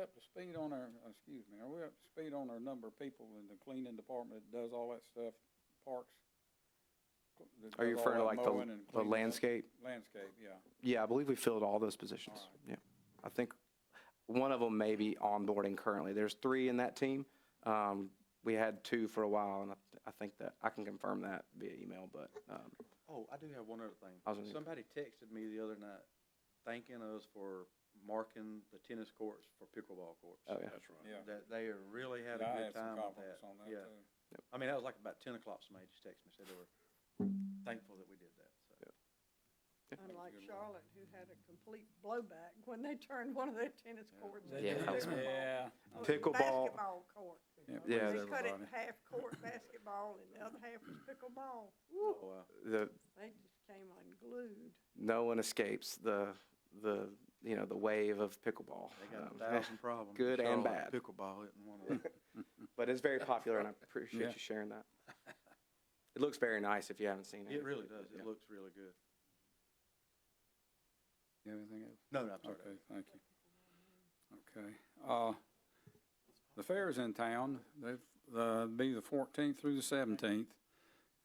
up to speed on our, uh, excuse me, are we up to speed on our number of people in the cleaning department that does all that stuff, parks? that Are you does all referring to that like mowing and the, the cleaning up? landscape? Landscape, yeah. Yeah, I believe we filled all those positions. All right. Yeah. I think one of them may be onboarding currently. There's three in that team. Um, we had two for a while and I, I think that, I can confirm that via email, but, um, Oh, I do have one other thing. I was gonna- Somebody texted me the other night thanking us for marking the tennis courts for pickleball courts. Oh, yeah. That's right. Yeah. That they are really having Yeah, I a had good some time with compliments that. on that, Yeah. too. I mean, that was like about ten o'clock, somebody just texted me, said they were thankful that we did that, so. Unlike Charlotte, who had a complete blowback when they turned one of their tennis courts into Yeah. a pickleball. Yeah. It was a Pickleball. Basketball court. Yeah, it Yeah. They brings cut it everybody. half court basketball and the other half was pickleball. Oh, wow. the, They just came unglued. no one escapes the, the, you know, the wave of pickleball. They got a Um, thousand problems. Good and Charlotte bad. Pickleball isn't one of them. But it's very popular and I appreciate Yeah. you sharing that. It looks very nice if you haven't seen it. It really does. Yeah. It looks really good. You have anything else? No, no, I'm sorry. Okay, thank you. Okay, uh, the fair is in town, they've, uh, be the fourteenth through the seventeenth.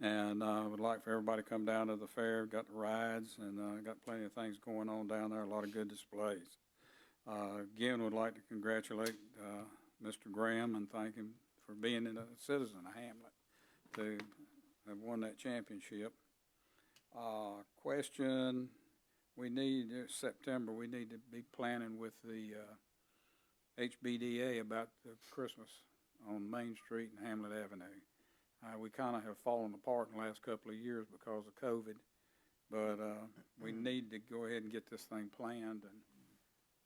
And I would like for everybody to come down to the fair, got the rides and, uh, got plenty of things going on down there, a lot of good displays. Uh, again, would like to congratulate, uh, Mr. Graham and thank him for being a citizen of Hamlet to have won that championship. Uh, question, we need, uh, September, we need to be planning with the uh, HBDA about the Christmas on Main Street and Hamlet Avenue. Uh, We kind of have fallen apart in the last couple of years because of COVID, but uh, we need to go ahead and get this thing planned and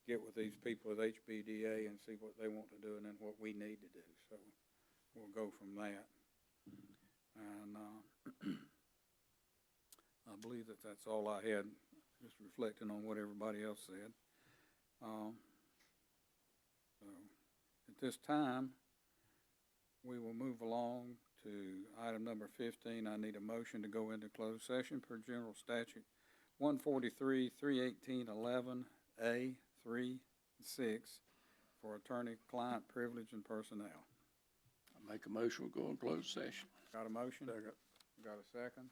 get with these people at HBDA and see what they want to do and then what we need to do. So we'll go from that. And uh, I believe that that's all I had just reflecting on what everybody else said. Um, so, at this time, we will move along to item number fifteen. I need a motion to go into closed session per general statute one forty-three, three eighteen, eleven, A, three, six, for attorney-client privilege and personnel. I Make a motion, we go in closed session. Got a motion? Got a second?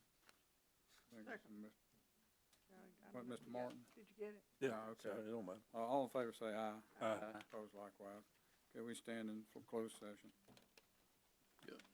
Thank you, Mr. I- I What, don't know if Mr. you got- Martin? Did you get it? Yeah, okay. so it don't matter. Uh, All in favor, say aye. Uh, Aye. Opposed likewise. Okay, we stand in closed session. Good.